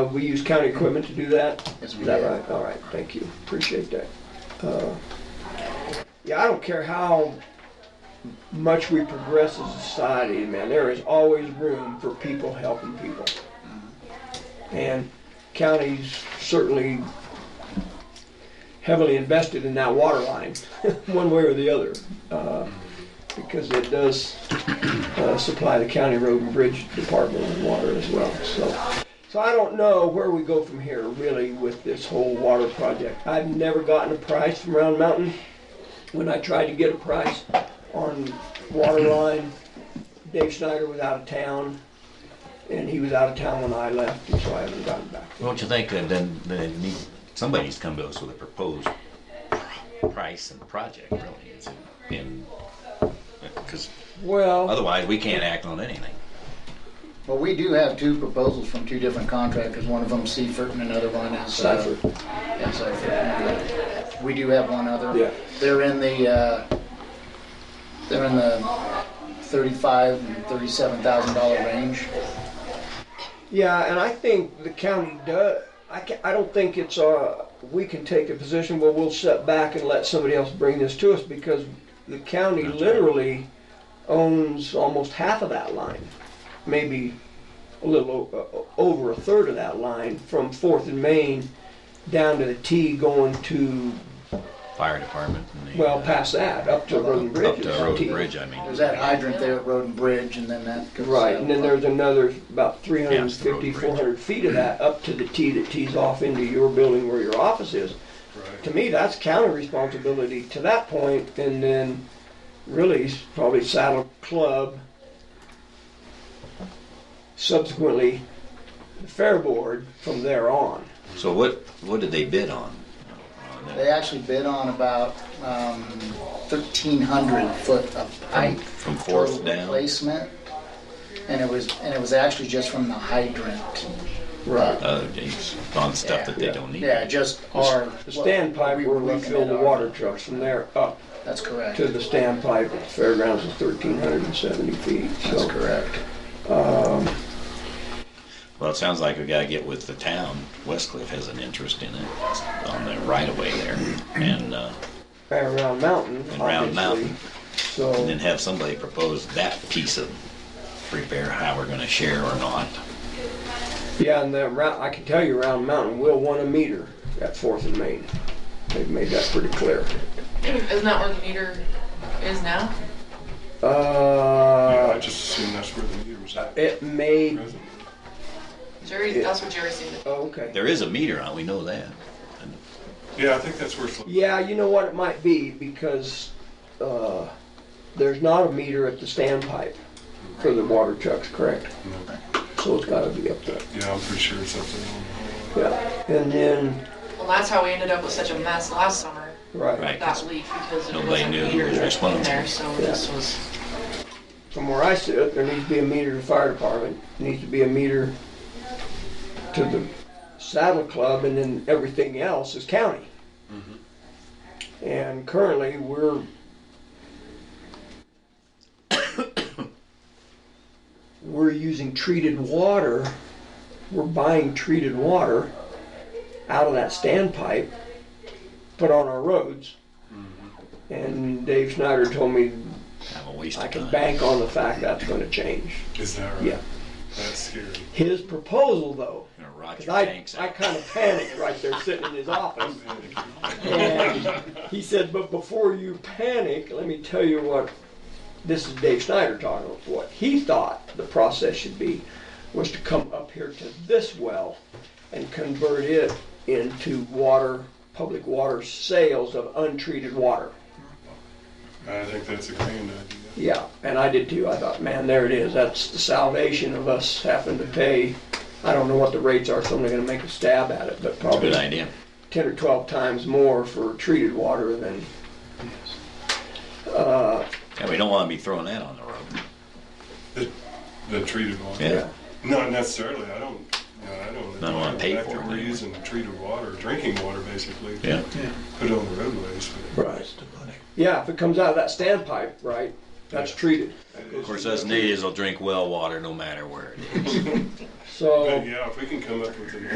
Uh, We use county equipment to do that? Yes, we Is that did. right? All right, thank you, appreciate that. Uh, Yeah, I don't care how much we progress as a society, man, there is always room for people helping people. And counties certainly heavily invested in that water line, one way or the other. uh, Because it does uh, supply the county road and bridge department with water as well, so. So I don't know where we go from here, really, with this whole water project. I've never gotten a price from Round Mountain. When I tried to get a price on water line, Dave Snyder was out of town, and he was out of town when I left, and so I haven't gotten back. Don't you think that then, then need, somebody's come to us with a proposed pr- price and project, really? is it? And, because Well, otherwise, we can't act on anything. Well, we do have two proposals from two different contractors, one of them Seifert and another one is. uh, Seifert. yeah, Seifert. We do have one other. Yeah. They're in the, uh, they're in the thirty-five and thirty-seven thousand dollar range. yeah, and I think the county does, I ca I don't think it's, uh, we can take a position where we'll set back and let somebody else bring this to us, because the county literally owns almost half of that line. maybe a little o- o- over a third of that line from Fourth and Main down to the T going to, Fire department and the. well, uh, past that, up to Road and Up Bridge. to is road T. and bridge, I mean. There's that hydrant there at Road and Bridge and then that. goes Right, south. and then there's another about Yeah, it's the road 350, bridge. 400 feet of that up to the T that tees off into your building where your office is. To me, that's county responsibility to that point, and then really s- probably Saddle Club. Subsequently, the Fair Board from there on. So what, what did they bid on? On that? They actually bid on about um, thirteen hundred foot of pipe. From fourth total down? Replacement, and it was, and it was actually just from the hydrant. Right. Oh, geez, on stuff that they Yeah. don't need. Yeah, just our. The standpipe where we fill the water trucks from there up That's correct. to the standpipe at the fairgrounds is thirteen hundred and seventy feet, That's so. correct. Well, it sounds like we gotta get with the town. Westcliff has an interest in it on the right of way there. And, uh, And Round Mountain, And Round obviously, Mountain. and then so, have somebody propose that piece of repair, how we're gonna share or not. yeah, and that round, I can tell you Round Mountain will want a meter at Fourth and Main. They've made that pretty clear. Isn't that where the meter is now? I Uh, just assumed that's where the meter was at. it may, Jerry's, Yeah. that's where Jerry's seen it. oh, okay. There is a meter on, we know that. Yeah, I think that's where it's. Yeah, you know what it might be, because, uh, there's not a meter at the standpipe for the water trucks, correct? So it's gotta be up there, Yeah, I'm pretty sure it's up there. yeah. And then, Well, that's how we ended up with such a mess last summer, right, Right. that leak, because it Nobody wasn't knew who was metered in responsible. there, so this was, from where I sit, there needs to be a meter to the fire department, needs to be a meter to the saddle club, and then everything else is county. And currently, we're we're using treated water, we're buying treated water out of that standpipe, put on our roads. And Dave Snyder told me Have a waste I of can time. bank on the fact that's gonna change. Is that right? Yeah. That's scary. His proposal though, Gonna rock 'cause your I, banks I out. kinda panicked right there sitting in his office. And he said, but before you panic, let me tell you what, this is Dave Snyder talking, what he thought the process should be was to come up here to this well and convert it into water, public water sales of untreated water. I think that's a grand idea. Yeah, and I did too. I thought, man, there it is. That's the salvation of us having to pay. I don't know what the rates are, so I'm not gonna make a stab at it, but probably Good idea. ten or twelve times more for treated water than. Uh, Yeah, we don't wanna be throwing that on the road. The, the treated water. Yeah. Not necessarily. I don't. You know, I don't. Not wanna the pay fact for that it We're anyway. using treated water, drinking water, basically. Yeah. Put on the roadways. but- right. Yeah, if it comes out of that standpipe, right, That's treated. Of course, us natives will drink well water no matter where it is. So. But yeah, if we can come up with a